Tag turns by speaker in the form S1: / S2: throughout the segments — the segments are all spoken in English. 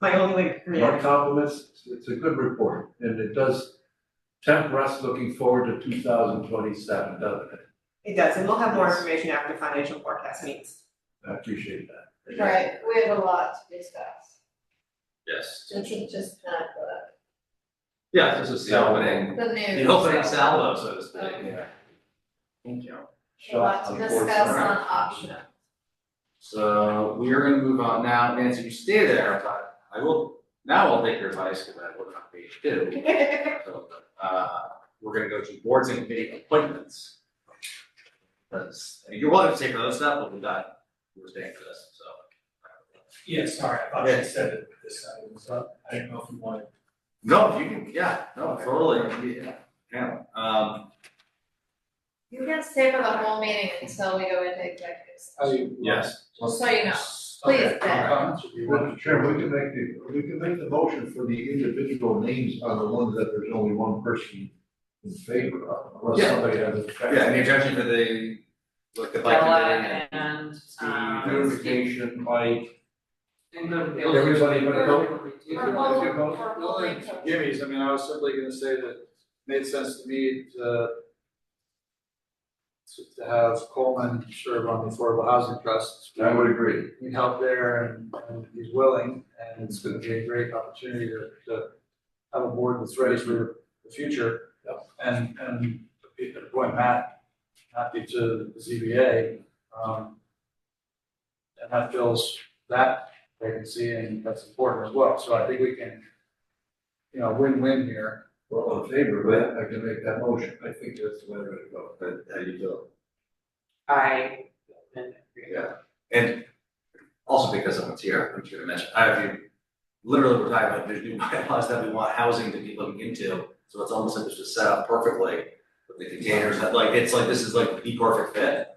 S1: my only way to create.
S2: No compliments, it's- it's a good report, and it does tempt us looking forward to two thousand twenty-seven, doesn't it?
S1: It does, and we'll have more
S2: Yes.
S1: information after financial forecast meets.
S2: I appreciate that.
S3: Right, we have a lot to discuss,
S4: Yes,
S3: this is just not the,
S4: yeah, this is the opening,
S3: the
S4: the
S3: news.
S4: opening salvo, so to speak.
S2: Yeah.
S5: Thank you.
S3: A lot to discuss on optional.
S4: So we are gonna move on now, Nancy, you stay there, but I will, now I'll take your advice, because I will not be too. So, uh, we're gonna go to boards and committee appointments. Because, I mean, you're welcome to stay for those stuff, but we got, we're staying for this, so.
S6: Yeah, sorry, I thought
S4: Yeah.
S6: you said that this side was up, I didn't know if you wanted.
S4: No, you can, yeah, no, totally, yeah, yeah, um,
S3: You can stay for the whole meeting until we go into executive session,
S7: Oh,
S4: yes.
S2: Oh,
S3: just so you know.
S6: Okay,
S3: Please, Ben.
S6: comments, if you want.
S2: Mr. Chairman, we can make the, we can make the motion for the individual names on the ones that there's only one person in favor of, unless
S4: Yeah.
S2: somebody has a.
S4: Yeah, and the objection for the, look, the bike committee and-
S5: and,
S3: Uh,
S2: The notification, like,
S5: And the.
S2: Everybody but
S3: Or
S2: vote?
S3: we'll-
S2: you vote?
S3: or we'll link to-
S7: Jimmy's, I mean, I was simply gonna say that it made sense to me to to- to have Coleman serve on the Affordable Housing Trust.
S2: I would agree.
S7: Need help there and, and he's willing, and it's gonna be a great opportunity to, to have a board that's ready for the future. And, and appoint Matt, happy to the ZBA, um, and that fills that vacancy and that's important as well, so I think we can, you know, win-win here.
S2: Well, all in favor, of that, I can make that motion, I think that's the way to go.
S4: But how do you feel?
S5: I.
S4: Yeah, and also because someone's here, I'm sure to mention, I have you, literally, we're talking about, there's new bylaws that we want housing to be looking into, so it's almost like it's just set up perfectly with the containers, that like, it's like, this is like the perfect fit.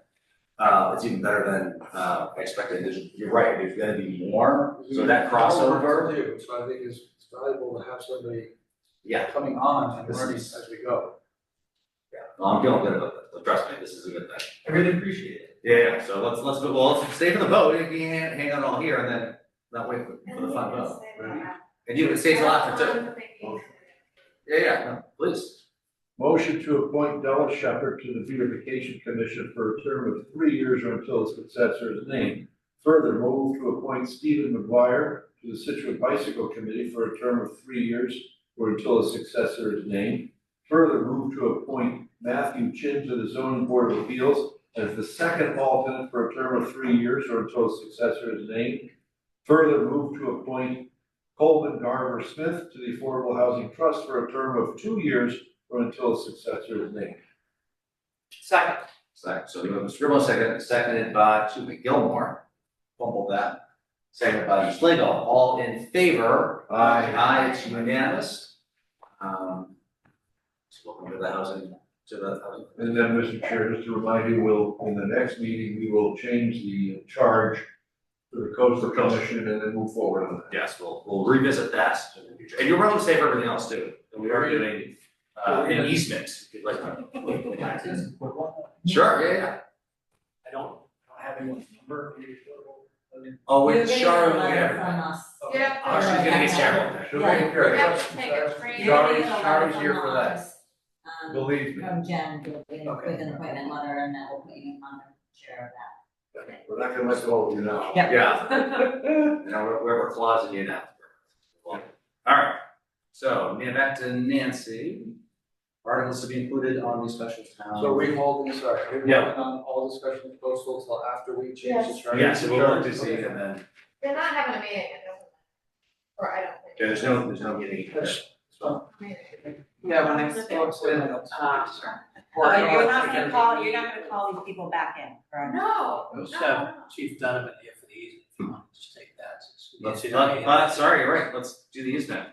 S4: Uh, it's even better than, uh, I expected, there's, you're right, there's gonna be more, so that crossover,
S7: Overview, So I think it's it's valuable to have somebody
S4: yeah,
S7: coming on and learning as we go.
S4: well, I'm feeling good about this, but trust me, this is a good thing.
S6: I really appreciate it.
S4: Yeah, so let's, let's, well, let's stay for the vote, you can hang hang out all here and then, not wait for for the fun vote, and you, it saves a lot for two.
S3: I'm thinking-
S4: Yeah, yeah, no, please.
S2: Motion to appoint Della Shepherd to the beautification commission for a term of three years or until his successor is named. Further, move to appoint Stephen McGuire to the Situate Bicycle Committee for a term of three years or until a successor is named. Further, move to appoint Matthew Chin to the zoning board of appeals as the second alternate for a term of three years or until a successor is named. Further, move to appoint Coleman Garver Smith to the Affordable Housing Trust for a term of two years or until a successor is named.
S5: Second.
S4: Second, so we have Mr. Grimmo, second, seconded by, excuse me, Gilmore, fumbled that. Seconded by Mr. Slagle, all in favor?
S2: Aye.
S4: Aye, it's unanimous. Um, so welcome to the housing, to the housing.
S2: And then, Mr. Chair, just to remind you, we'll, in the next meeting, we will change the charge to the coastal commission and then move forward on
S4: Yes, we'll, we'll revisit that in the future, and you're welcome to stay for everything else too, and we are doing, uh, an easement, if you'd like.
S6: Taxes, what, what?
S4: Sure, yeah, yeah.
S6: I don't, I don't have anyone's number. I mean,
S4: Oh,
S8: We're
S4: with
S8: getting
S4: Sharon,
S8: a letter
S4: yeah.
S8: from us.
S3: Yeah.
S4: Oh, she's gonna get terrible.
S2: that.
S8: She'll take
S4: care
S3: We have to take a train.
S8: You're
S4: Shari's-
S8: getting a letter
S4: Shari's
S8: from
S4: here for that.
S8: us, Um,
S2: Believe me.
S8: from Jen, with
S4: Okay.
S8: with an appointment letter, and that will put you on the chair
S2: We're not gonna let go of you now.
S8: of
S4: Yeah.
S8: that. Yeah.
S4: Now, we're, we're we're closeting you now. All right, so, now back to Nancy. Articles to be included on the special town.
S7: So we holding, sorry, are we
S4: Um, Yeah.
S7: holding on um, all discussion of postal till after we change the
S3: Yes.
S7: charge?
S4: Yeah, so we'll look to see and then,
S3: They're not having a meeting, it doesn't matter. Or I don't think.
S4: there's no, there's no getting.
S5: Yeah, when I spoke with,
S6: uh,
S5: um.
S8: Oh, you're not gonna call, you're not gonna call these people back in, correct?
S3: No, no,
S6: So
S3: no.
S6: Chief Donovan here for the E, easement, if you want, just take that. since you
S4: Let's,
S6: see
S4: uh,
S6: that.
S4: uh, sorry, you're right, let's do the easement.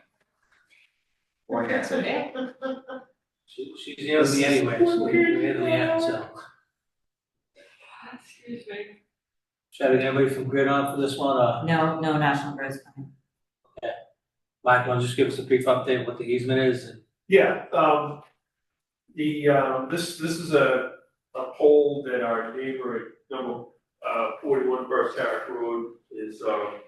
S4: Or can't say.
S6: She, she's the only anyway, so we can get the end, so.
S5: Excuse me.
S6: Should I get anybody from Grid on for this one, uh,
S8: No, no national grid's coming.
S6: Mike, why don't you just give us a brief update of what the easement is and
S9: Yeah, um, the, um, this, this is a, a pole that our neighbor at number, uh, forty-one Burst Harris Road is, um,